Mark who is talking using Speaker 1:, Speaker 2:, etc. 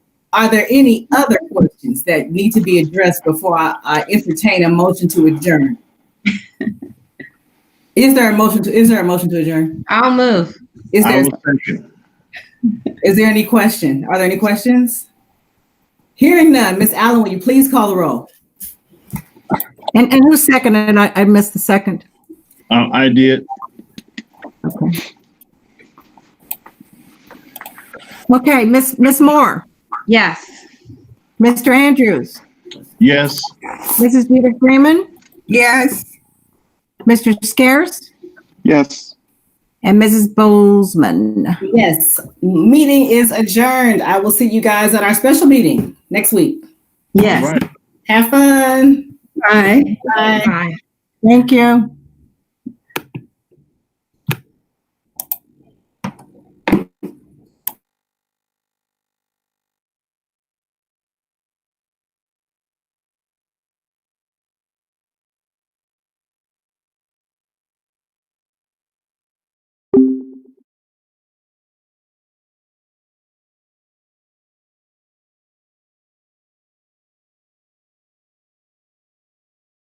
Speaker 1: Are there any other questions that need to be addressed before I, I entertain a motion to adjourn? Is there a motion to, is there a motion to adjourn?
Speaker 2: I'll move.
Speaker 1: Is
Speaker 3: I
Speaker 1: there,
Speaker 3: will second.
Speaker 1: is there any question? Are there any questions? Hearing none, Ms. Allen, will you please call the roll?
Speaker 4: And, and who seconded? I, I missed the second.
Speaker 3: Uh, I did.
Speaker 4: Okay, Miss Miss Moore,
Speaker 2: Yes.
Speaker 4: Mr. Andrews,
Speaker 3: Yes.
Speaker 4: Mrs. Peter Freeman,
Speaker 5: Yes.
Speaker 4: Mr. Scarce,
Speaker 3: Yes.
Speaker 4: and Mrs. Bozeman.
Speaker 1: Yes, meeting is adjourned. I will see you guys at our special meeting next week.
Speaker 3: All
Speaker 2: Yes.
Speaker 3: right.
Speaker 1: Have fun.
Speaker 5: Aye.
Speaker 2: Bye.
Speaker 4: Thank you.